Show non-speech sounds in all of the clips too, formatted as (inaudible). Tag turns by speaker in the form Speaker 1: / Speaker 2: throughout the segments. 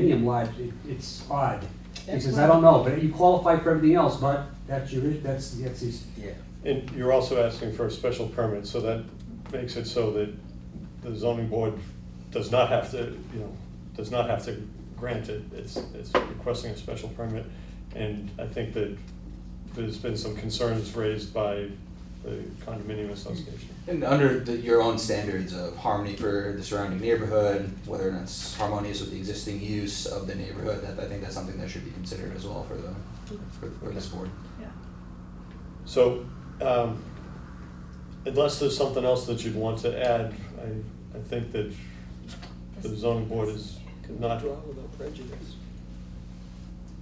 Speaker 1: medium large, it, it's odd.
Speaker 2: That's
Speaker 1: Because
Speaker 2: why-
Speaker 1: I don't know, but you qualify for everything else, but that's your, that's, that's his.
Speaker 3: Yeah.
Speaker 4: And you're also asking for a special permit, so that makes it so that the zoning board does not have to, you know, does not have to grant it. It's, it's requesting a special permit. And I think that there's been some concerns raised by the condominium association.
Speaker 3: And under the, your own standards of harmony for the surrounding neighborhood, whether or not it's harmonious with the existing use of the neighborhood, that I think that's something that should be considered as well for the for, for this board.
Speaker 2: Yeah.
Speaker 4: So, um, unless there's something else that you'd want to add, I, I think that the zoning board is not.
Speaker 5: Draw without prejudice.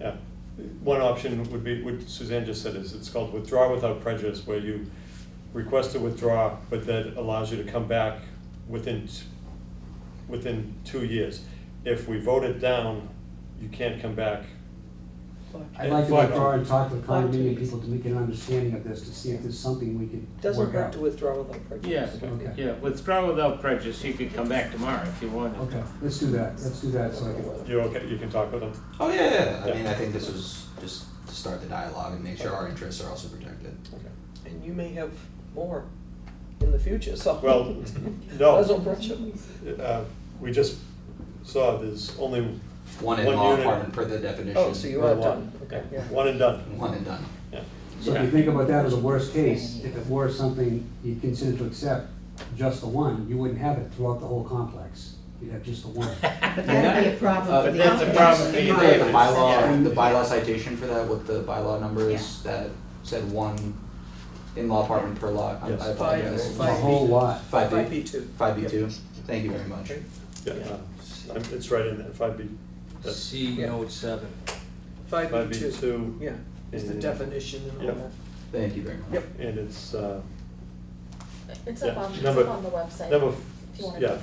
Speaker 4: Yeah, one option would be, what Suzanne just said is, it's called withdraw without prejudice, where you request to withdraw, but that allows you to come back within, t- within two years. If we vote it down, you can't come back.
Speaker 1: I'd like to
Speaker 4: Fuck.
Speaker 1: withdraw and talk to the
Speaker 2: Fuck.
Speaker 1: condominium people to make an understanding of this, to see if there's something we can
Speaker 5: Doesn't
Speaker 1: work
Speaker 5: hurt
Speaker 1: out.
Speaker 5: to withdraw without
Speaker 6: Yeah,
Speaker 5: prejudice.
Speaker 1: Okay.
Speaker 6: yeah, withdraw without prejudice, you could come back tomorrow if you wanted.
Speaker 1: Okay, let's do that, let's do that, so I can.
Speaker 4: You okay, you can talk with them?
Speaker 3: Oh yeah, yeah, yeah. I
Speaker 4: Yeah.
Speaker 3: mean, I think this was just to start the dialogue and make sure our interests are also protected.
Speaker 4: Okay.
Speaker 5: And you may have more in the future, so. (laughs)
Speaker 4: Well, (laughs) no.
Speaker 5: There's no pressure.
Speaker 4: Uh, We just saw there's only.
Speaker 3: One in
Speaker 4: One
Speaker 3: law
Speaker 4: unit.
Speaker 3: apartment per the definition.
Speaker 5: Oh, so you
Speaker 4: one
Speaker 5: are
Speaker 4: lot.
Speaker 5: done, okay, yeah.
Speaker 4: One and done,
Speaker 3: One and done.
Speaker 4: yeah.
Speaker 1: So if you think about that as a worst case, if it were something you consider to accept, just the one, you wouldn't have it throughout the whole complex. You'd have just the one.
Speaker 2: But that'd be a problem
Speaker 3: Uh,
Speaker 2: for
Speaker 6: but
Speaker 2: the.
Speaker 6: that's a
Speaker 2: owners.
Speaker 6: problem for
Speaker 3: Do
Speaker 6: you,
Speaker 3: you know the
Speaker 6: David.
Speaker 3: bylaw, the bylaw citation for that, what the bylaw number is that said one in-law apartment per lot? I-
Speaker 4: Yes.
Speaker 3: I
Speaker 4: Five-
Speaker 3: apologize.
Speaker 1: The whole lot.
Speaker 3: Five
Speaker 5: Five
Speaker 3: B?
Speaker 5: B two.
Speaker 3: Five B two, thank you very much.
Speaker 5: Okay.
Speaker 4: Yeah, uh, It's right in there, five B. that's
Speaker 6: C note seven.
Speaker 5: Five
Speaker 4: Five
Speaker 5: B
Speaker 4: B
Speaker 5: two,
Speaker 4: two,
Speaker 5: yeah, is the
Speaker 4: And-
Speaker 5: definition and all
Speaker 4: Yep.
Speaker 5: that.
Speaker 3: Thank you very much.
Speaker 5: Yep.
Speaker 4: and it's, uh,
Speaker 7: It's
Speaker 4: Yeah,
Speaker 7: up on, it's
Speaker 4: number-
Speaker 7: up on the website.
Speaker 4: number,
Speaker 7: If you want to
Speaker 4: yeah,
Speaker 7: do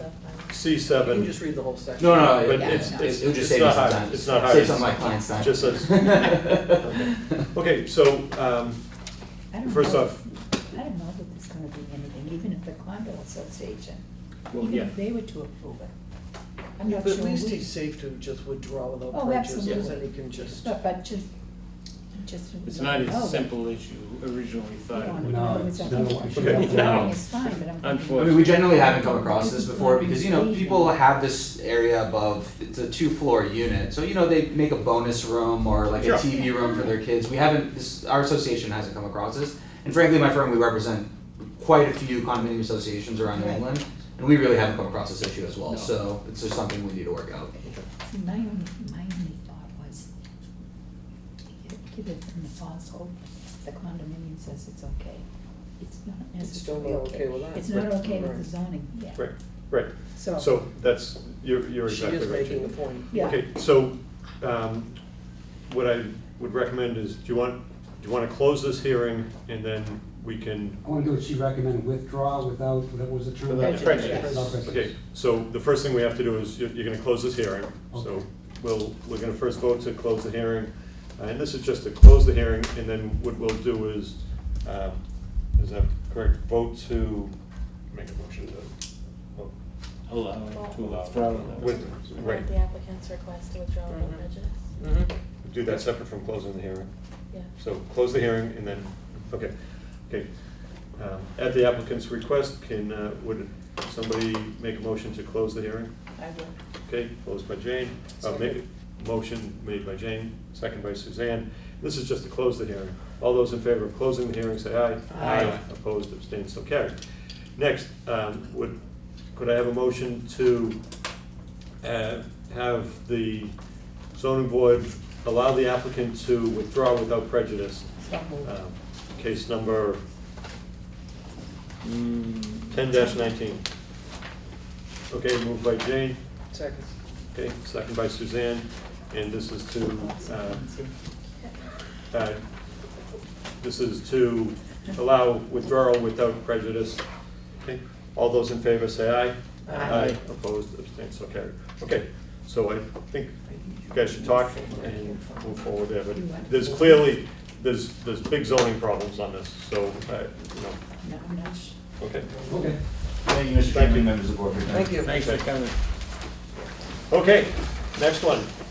Speaker 7: the.
Speaker 4: C
Speaker 5: You
Speaker 4: seven.
Speaker 5: can just read the whole section.
Speaker 3: No, no,
Speaker 4: But
Speaker 3: it,
Speaker 4: it's,
Speaker 3: it
Speaker 4: it's,
Speaker 3: it would just
Speaker 4: it's
Speaker 3: save me
Speaker 4: not
Speaker 3: some
Speaker 4: hard,
Speaker 3: time.
Speaker 4: it's not hard.
Speaker 3: Save some of my clients' time.
Speaker 4: Just says-
Speaker 3: (laughs)
Speaker 4: Okay, so, um,
Speaker 8: I don't
Speaker 4: first
Speaker 8: know.
Speaker 4: off,
Speaker 8: I don't know that there's gonna be anything, even if the condo association,
Speaker 6: Well,
Speaker 8: even
Speaker 6: yeah,
Speaker 8: if they were to approve it. I'm
Speaker 5: Yeah,
Speaker 8: not
Speaker 5: but
Speaker 8: sure
Speaker 5: at least
Speaker 8: we-
Speaker 5: he's safe to just withdraw without
Speaker 8: Oh,
Speaker 5: prejudice, because
Speaker 8: absolutely.
Speaker 5: then he can just.
Speaker 8: But, but just, just.
Speaker 6: it's not as
Speaker 8: Oh,
Speaker 6: simple as you originally
Speaker 8: you
Speaker 6: thought. it
Speaker 8: don't
Speaker 6: would.
Speaker 1: No,
Speaker 8: know, it's
Speaker 1: it's
Speaker 8: a-
Speaker 1: not what
Speaker 4: you
Speaker 6: (laughs)
Speaker 8: it's
Speaker 4: don't
Speaker 8: not
Speaker 6: know.
Speaker 8: It's fine, but I'm.
Speaker 3: I
Speaker 6: Unfortunately.
Speaker 3: mean, we generally haven't come across this before because, you know, people have this area above, it's a two floor unit. So, you know, they make a bonus room or like
Speaker 4: Sure.
Speaker 3: a TV room for their kids. We haven't, this, our association hasn't come across this. And frankly, my firm, we represent quite a few condominium associations around New
Speaker 8: Right.
Speaker 3: England. And we really haven't come across this issue as well. So it's just something we need to work out.
Speaker 8: See, My only, my only thought was, give- give it them the false hope, the condominium says it's okay. It's not
Speaker 5: It's still
Speaker 8: necessarily
Speaker 5: not
Speaker 8: okay.
Speaker 5: okay with us.
Speaker 8: It's not
Speaker 4: Right.
Speaker 8: okay with the
Speaker 5: Right.
Speaker 8: zoning, yeah.
Speaker 4: right, right,
Speaker 8: So.
Speaker 4: so that's, you're, you're
Speaker 5: She
Speaker 4: exactly
Speaker 5: is
Speaker 4: right.
Speaker 5: making
Speaker 4: Jane.
Speaker 5: the point.
Speaker 8: Yeah.
Speaker 4: Okay, so, um, what I would recommend is, do you want, do you wanna close this hearing and then we can,
Speaker 1: I want to do what she recommended, withdraw without, what was the term?
Speaker 6: Without prejudice.
Speaker 1: Without prejudice.
Speaker 4: okay, so the first thing we have to do is, you're, you're gonna close this hearing. So,
Speaker 1: Okay.
Speaker 4: we'll, we're gonna first vote to close the hearing, Uh, and this is just to close the hearing, and then what we'll do is, um, is that correct, vote to make a motion to, oh,
Speaker 6: Allow it to withdraw without
Speaker 4: with,
Speaker 6: prejudice.
Speaker 4: right,
Speaker 7: The applicant's request to withdraw
Speaker 5: Mhm.
Speaker 7: without prejudice.
Speaker 5: Mhm.
Speaker 6: Mm-hmm.
Speaker 4: do that separate from closing the hearing.
Speaker 7: Yeah.
Speaker 4: So close the hearing and then, okay, okay. Um, At the applicant's request, can, uh, would somebody make a motion to close the hearing?
Speaker 5: I will.
Speaker 4: Okay, closed by Jane. Uh, ma-
Speaker 5: Second.
Speaker 4: Motion made by Jane, second by Suzanne. This is just to close the hearing. All those in favor of closing the hearing, say aye.
Speaker 6: Aye.
Speaker 4: Opposed, abstained, so carried. Next, um, would, could I have a motion to uh, have the zoning board allow the applicant to withdraw without prejudice?
Speaker 8: So moved.
Speaker 4: um, Case number
Speaker 6: Mm,
Speaker 4: ten nineteen. Okay, moved by Jane.
Speaker 5: Second.
Speaker 4: Okay, second by Suzanne, and this is to, uh, uh, this is to allow withdrawal without prejudice. Okay, all those in favor say aye.
Speaker 5: Aye.
Speaker 4: Opposed, abstained, so carried. Okay, so I think you guys should talk and move forward there, but there's clearly, there's, there's big zoning problems on this, so, uh, you know,
Speaker 8: No, I'm not sure.
Speaker 4: okay.
Speaker 1: Okay.
Speaker 9: Thank you, Mr.
Speaker 4: Thank you.
Speaker 9: Chairman, members of the board. for your time.
Speaker 5: Thank you.
Speaker 6: Thanks for coming.
Speaker 4: Okay, next one.